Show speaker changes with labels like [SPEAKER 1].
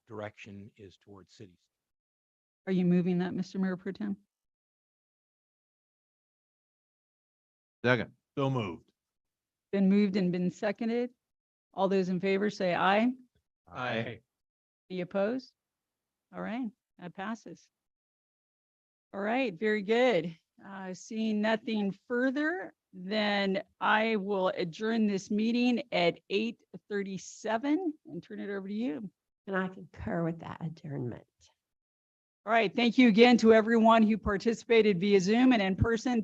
[SPEAKER 1] direction is towards cities.
[SPEAKER 2] Are you moving that, Mr. Mayor Pro Tem?
[SPEAKER 3] Second.
[SPEAKER 4] So moved.
[SPEAKER 2] Been moved and been seconded. All those in favor say aye.
[SPEAKER 3] Aye.
[SPEAKER 2] Any opposed? All right, that passes. All right, very good. Uh, Seeing nothing further, then I will adjourn this meeting at eight thirty-seven and turn it over to you.
[SPEAKER 5] And I concur with that adjournment.
[SPEAKER 2] All right, thank you again to everyone who participated via Zoom and in person.